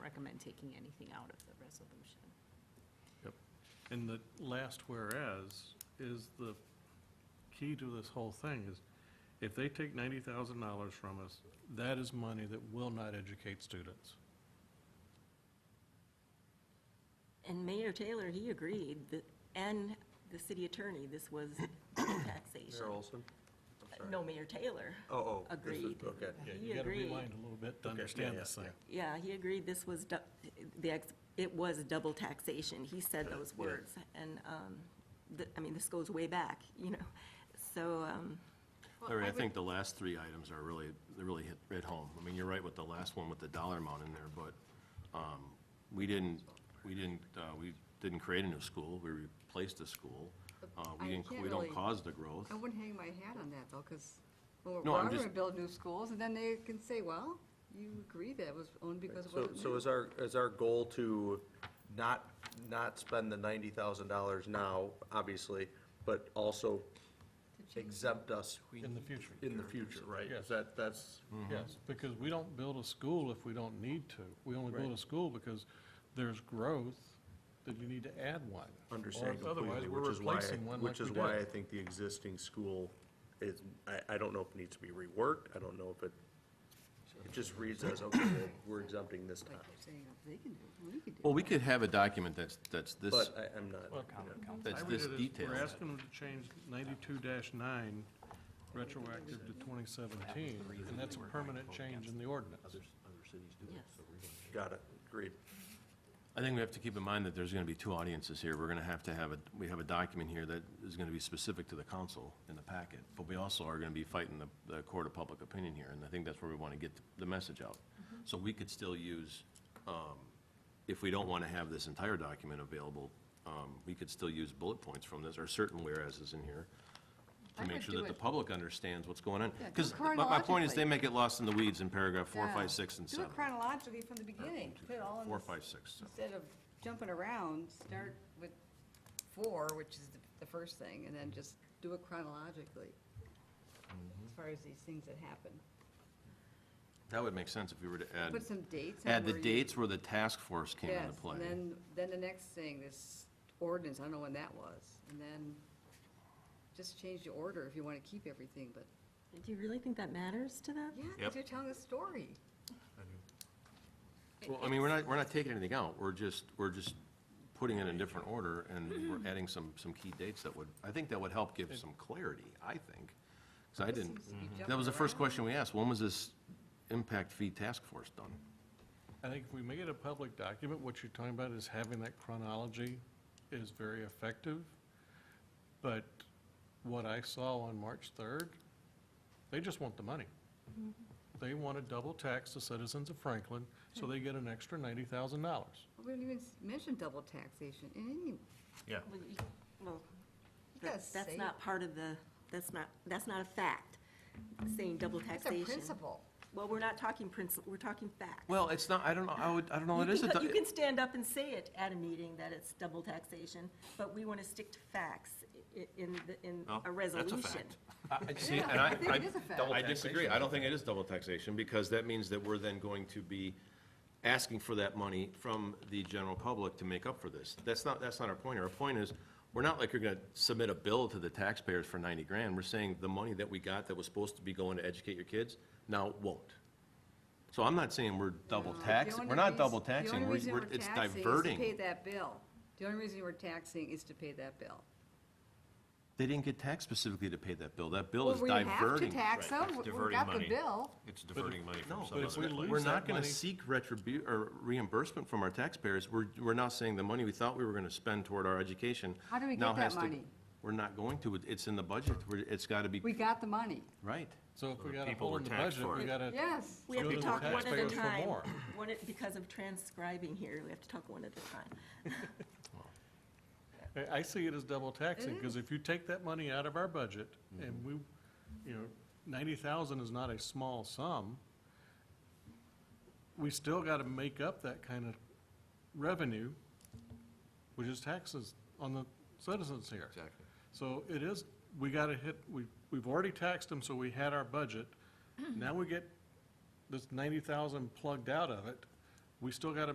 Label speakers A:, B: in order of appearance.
A: recommend taking anything out of the resolution.
B: And the last whereas is the key to this whole thing is if they take ninety thousand dollars from us, that is money that will not educate students.
C: And Mayor Taylor, he agreed, that- and the city attorney, this was taxation.
D: Mayor Olson? I'm sorry.
C: No, Mayor Taylor.
D: Oh, oh. this is-
C: agreed.
D: Okay.
B: Yeah,
C: He
B: you gotta
C: agreed.
B: rewind a little bit to
D: Okay, yeah,
B: understand
D: yeah,
B: this thing.
D: yeah.
C: Yeah, he agreed this was, du- the, ex- it was double taxation. He said those
D: Yeah.
C: words. And, um, the, I mean, this goes way back, you know? So, um,
E: Larry, I think the last three items are really, they really hit, hit home. I mean, you're right with the last one with the dollar amount in there, but, um, we didn't, we didn't, uh, we didn't create a new school, we replaced a school. Uh,
F: I
E: we didn't,
F: can't
E: we don't
F: really-
E: cause the growth.
F: I wouldn't hang my hat on that, though, because we're
E: No, I'm
F: going to
E: just-
F: build new schools, and then they can say, well, you agree that it was owned because it
D: So,
F: wasn't
D: so
F: new."
D: is our, is our goal to not, not spend the ninety thousand dollars now, obviously, but also exempt us?
B: In the future.
D: In the future, right?
B: Yes.
D: Is that, that's,
B: Yes, because we don't build a school if we don't need to. We only build
D: Right.
B: a school because there's growth that you need to add one. Or
D: understand
B: if Otherwise,
D: completely,
B: we're
D: which is why, I-
B: replacing one like
D: which
B: we
D: is why I
B: did.
D: think the existing school is, I, I don't know if it needs to be reworked, I don't know if it, it just reads as, okay, well, we're exempting this time,
F: Like you're saying, they can do it, we can do it.
E: Well, we could have a document that's, that's this,
D: but I, I'm not.
B: Well,
E: that's
B: I read
E: this
B: it as
E: detailed.
B: We're asking them to change ninety-two nine retroactive to twenty seventeen, and that's a permanent change in the ordinance.
C: yes.
D: Got it, agreed.
E: I think we have to keep in mind that there's gonna be two audiences here. We're gonna have to have a, we have a document here that is gonna be specific to the council in the packet, but we also are gonna be fighting the, the court of public opinion here, and I think that's where we wanna get the message out.
F: Mm-hmm.
E: So we could still use, um, if we don't wanna have this entire document available, um, we could still use bullet points from this, or certain whereases in here,
F: I
E: to make
F: would
E: sure
F: do
E: that the
F: it-
E: public understands what's going on.
F: Yeah, do
E: Because
F: it
E: my, my point is,
F: chronologically.
E: they may get lost in the weeds in paragraph four,
F: Yeah.
E: five, six, and seven.
F: Do it chronologically from the beginning, put it all in
E: Four,
F: this-
E: five, six, seven.
F: Instead of jumping around, start with four, which is the- the first thing, and then just do it chronologically,
E: Mm-hmm.
F: as far as these things that happen.
E: That would make sense if we were to add.
F: Put some dates on
E: Add the
F: where you-
E: dates where the task force came into
F: Yes,
E: play.
F: and then, then the next thing, this ordinance, I don't know when that was, and then just change the order if you want to keep everything, but,
C: Do you really think that matters to them?
F: yeah, 'cause
E: Yep.
F: you're telling a story.
E: Well, I mean, we're not, we're not taking anything out, we're just, we're just putting it in different order, and we're adding some, some key dates that would, I think that would help give some clarity, I think. Because I didn't,
F: seems to
G: Mm-hmm.
F: be
E: that was the
F: jumping
E: first
F: around.
E: question we asked, when was this impact fee task force done?
B: I think if we make it a public document, what you're talking about is having that chronology is very effective. But what I saw on March 3rd, they just want the money. They want to double tax the citizens of Franklin, so they get an extra $90,000.
F: We didn't even s- mention double taxation in any,
E: Yeah.
C: Well, you- Well,
F: you gotta
C: that-
F: say
C: that's
F: it.
C: not part of the, that's not, that's not a fact, saying double
F: It's
C: taxation.
F: a principle.
C: Well, we're not talking principle, we're talking fact.
E: Well, it's not, I don't know, I would, I don't know,
C: You
E: it is a,
C: can, co- you
E: do-
C: can stand up and say it at a meeting that it's double taxation, but we want to stick to facts i- in, the- in
E: Well, that's
C: a
E: a
C: resolution.
E: fact. I- see,
F: Yeah,
E: and I,
F: I think it is a fact.
E: I,
F: Double
E: I disagree, I don't think it is double taxation, because that means that we're then going to be asking for that money from the general public to make up for this. That's not, that's not our point, our point is, we're not like you're gonna submit a bill to the taxpayers for ninety grand, we're saying the money that we got that was supposed to be going to educate your kids, now won't. So I'm not saying we're double
F: The
E: taxing,
F: only
E: we're not
F: reas-
E: double taxing,
F: The only
E: we're,
F: reason
E: we're-
F: we're
E: it's
F: taxing is to pay
E: diverting.
F: that bill. The only reason we're taxing is to pay that bill.
E: They didn't get taxed specifically to pay that bill, that bill
F: Well,
E: is
F: we
E: diverting.
F: have to tax
G: Right,
F: them,
G: it's
F: we- we
G: diverting
F: got the
G: money.
F: bill.
G: It's diverting money from
E: No,
G: some
B: but if
G: other
B: we
G: place.
B: lose
E: We're not
B: that
E: gonna
B: money-
E: seek retribu, or reimbursement from our taxpayers. We're, we're now saying the money we thought we were gonna spend toward our education.
F: How do we get
E: now
F: that
E: has to-
F: money?
E: We're not going to. It- It's in the budget. We're- It's gotta be,
F: We got the money.
E: right.
B: So if we
G: the
B: got a
G: people
B: hole
G: were
B: in the
G: taxed
B: budget,
G: for
B: we
G: it.
B: got to.
F: Yes.
C: We have to
B: Go to the
C: talk one at a
B: taxpayers for
C: time.
B: more.
C: One at- because of transcribing here, we have to talk one at a time.
B: I- I see it as double taxing, because if you take that money out of our budget, and we, you know, ninety thousand is not a small sum, we still gotta make up that kind of revenue, which is taxes on the citizens here.
E: Exactly.
B: So it is, we gotta hit, we, we've already taxed them, so we had our budget. Now we get this ninety thousand plugged out of it, we still gotta